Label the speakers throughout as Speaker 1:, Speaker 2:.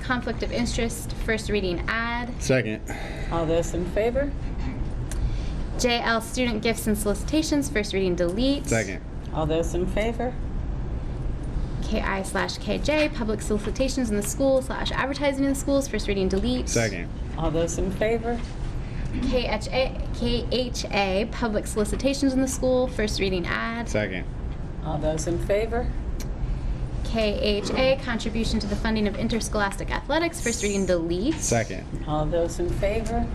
Speaker 1: conflict of interest, first reading ad.
Speaker 2: Second.
Speaker 3: All those in favor?
Speaker 1: JL student gifts and solicitations, first reading delete.
Speaker 2: Second.
Speaker 3: All those in favor?
Speaker 1: KI slash KJ, public solicitations in the school slash advertising in the schools, first reading delete.
Speaker 2: Second.
Speaker 3: All those in favor?
Speaker 1: KHA, KHA, public solicitations in the school, first reading ad.
Speaker 2: Second.
Speaker 3: All those in favor?
Speaker 1: KHA, contribution to the funding of interscholastic athletics, first reading delete.
Speaker 2: Second.
Speaker 3: All those in favor?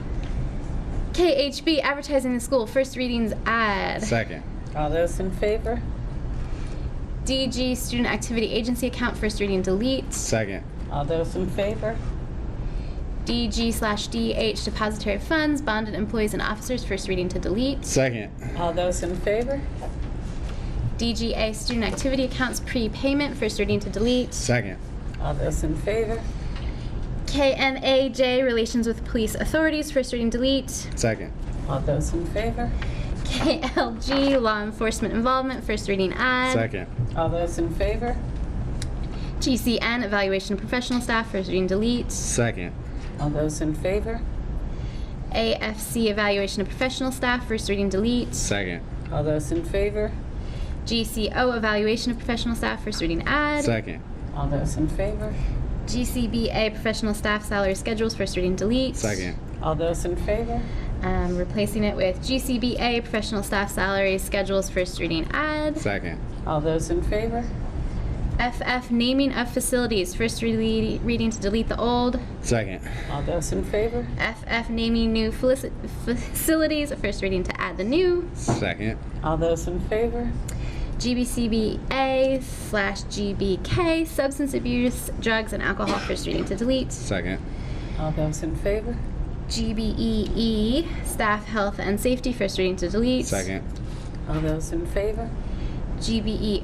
Speaker 1: KHB, advertising in the school, first readings ad.
Speaker 2: Second.
Speaker 3: All those in favor?
Speaker 1: DG, student activity agency account, first reading delete.
Speaker 2: Second.
Speaker 3: All those in favor?
Speaker 1: DG slash DH, depository of funds, bonded employees and officers, first reading to delete.
Speaker 2: Second.
Speaker 3: All those in favor?
Speaker 1: DGA, student activity accounts, prepayment, first reading to delete.
Speaker 2: Second.
Speaker 3: All those in favor?
Speaker 1: KNAJ, relations with police authorities, first reading delete.
Speaker 2: Second.
Speaker 3: All those in favor?
Speaker 1: KLG, law enforcement involvement, first reading ad.
Speaker 2: Second.
Speaker 3: All those in favor?
Speaker 1: GCN, evaluation of professional staff, first reading delete.
Speaker 2: Second.
Speaker 3: All those in favor?
Speaker 1: AFC, evaluation of professional staff, first reading delete.
Speaker 2: Second.
Speaker 3: All those in favor?
Speaker 1: GCO, evaluation of professional staff, first reading add.
Speaker 2: Second.
Speaker 3: All those in favor?
Speaker 1: GCBA, professional staff salary schedules, first reading delete.
Speaker 2: Second.
Speaker 3: All those in favor?
Speaker 1: Um, replacing it with GCBA, professional staff salary schedules, first reading add.
Speaker 2: Second.
Speaker 3: All those in favor?
Speaker 1: FF, naming of facilities, first re- reading to delete the old.
Speaker 2: Second.
Speaker 3: All those in favor?
Speaker 1: FF, naming new felici- facilities, first reading to add the new.
Speaker 2: Second.
Speaker 3: All those in favor?
Speaker 1: GBCBA slash GBK, substance abuse, drugs, and alcohol, first reading to delete.
Speaker 2: Second.
Speaker 3: All those in favor?
Speaker 1: GBEE, E staff health and safety, first reading to delete.
Speaker 2: Second.
Speaker 3: All those in favor?
Speaker 1: GBER,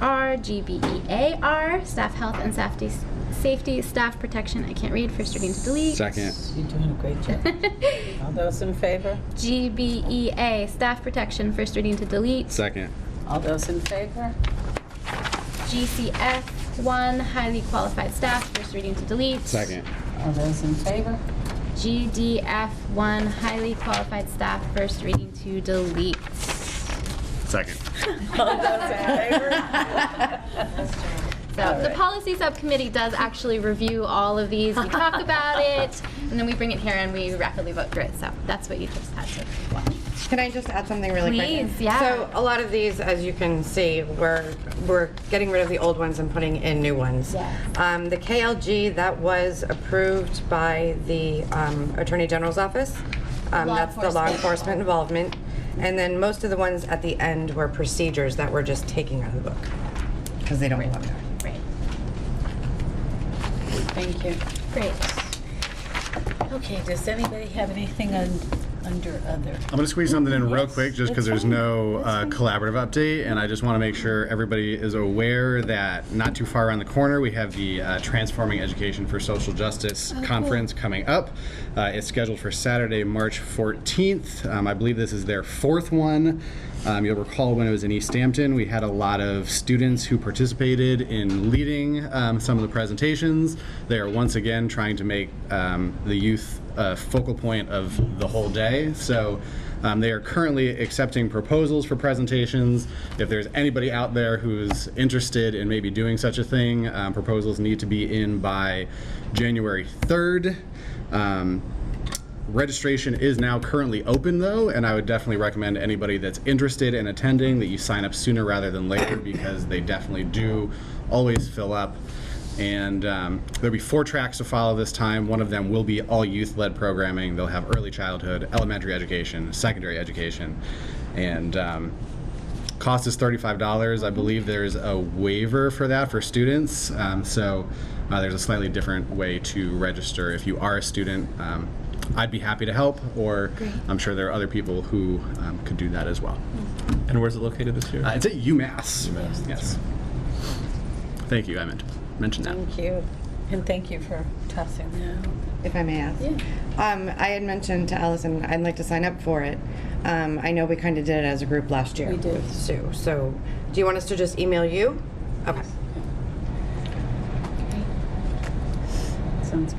Speaker 1: GBEAR, E staff health and safety, safety, staff protection, I can't read, first reading to delete.
Speaker 2: Second.
Speaker 3: You're doing a great job. All those in favor?
Speaker 1: GBEA, E staff protection, first reading to delete.
Speaker 2: Second.
Speaker 3: All those in favor?
Speaker 1: GCF, one, highly qualified staff, first reading to delete.
Speaker 2: Second.
Speaker 3: All those in favor?
Speaker 1: GDF1, highly qualified staff, first reading to delete.
Speaker 2: Second.
Speaker 3: All those in favor?
Speaker 1: So the policy subcommittee does actually review all of these, we talk about it, and then we bring it here and we rapidly vote through it, so that's what you just had to watch.
Speaker 4: Can I just add something really quick?
Speaker 1: Please, yeah.
Speaker 4: So a lot of these, as you can see, we're, we're getting rid of the old ones and putting in new ones.
Speaker 1: Yes.
Speaker 4: Um, the KLG, that was approved by the um, Attorney General's Office. Um,
Speaker 1: Law
Speaker 4: That's the law
Speaker 1: enforcement.
Speaker 4: enforcement involvement. And then most of the ones at the end were procedures that we're just taking out of the book, because they don't belong there.
Speaker 1: Great,
Speaker 3: Thank you.
Speaker 1: great.
Speaker 3: Okay, does anybody have anything un- under other?
Speaker 2: I'm going to squeeze something in real quick just because there's no uh, collaborative update, and I just want to make sure everybody is aware that not too far around the corner, we have the uh, Transforming Education for Social Justice Conference coming up. Uh, it's scheduled for Saturday, March 14th. Um, I believe this is their fourth one. Um, you'll recall when it was in East Hampton, we had a lot of students who participated in leading um, some of the presentations. They are once again trying to make um, the youth a focal point of the whole day. So um, they are currently accepting proposals for presentations. If there's anybody out there who's interested in maybe doing such a thing, um, proposals need to be in by January 3rd. Um, Registration is now currently open though, and I would definitely recommend anybody that's interested in attending that you sign up sooner rather than later because they definitely do always fill up. And um, there'll be four tracks to follow this time. One of them will be all youth led programming. They'll have early childhood, elementary education, secondary education, and um, cost is $35 i believe there's a waiver for that for students um, so uh, there's a slightly different way to register if you are a student um, i'd be happy to help or i'm sure there are other people who um, could do that as well
Speaker 5: And where's it located this year?
Speaker 2: uh, it's at umass,
Speaker 5: UMass, that's
Speaker 2: yes thank you i meant mention that
Speaker 3: Thank you, and thank you for tossing that out.
Speaker 4: if I may ask. Um, I had mentioned to Allison, I'd like to sign up for it. Um, I know we kind of did it as a group last year.
Speaker 3: We did.
Speaker 4: with Sue, so do you want us to just email you? Okay.
Speaker 3: So sounds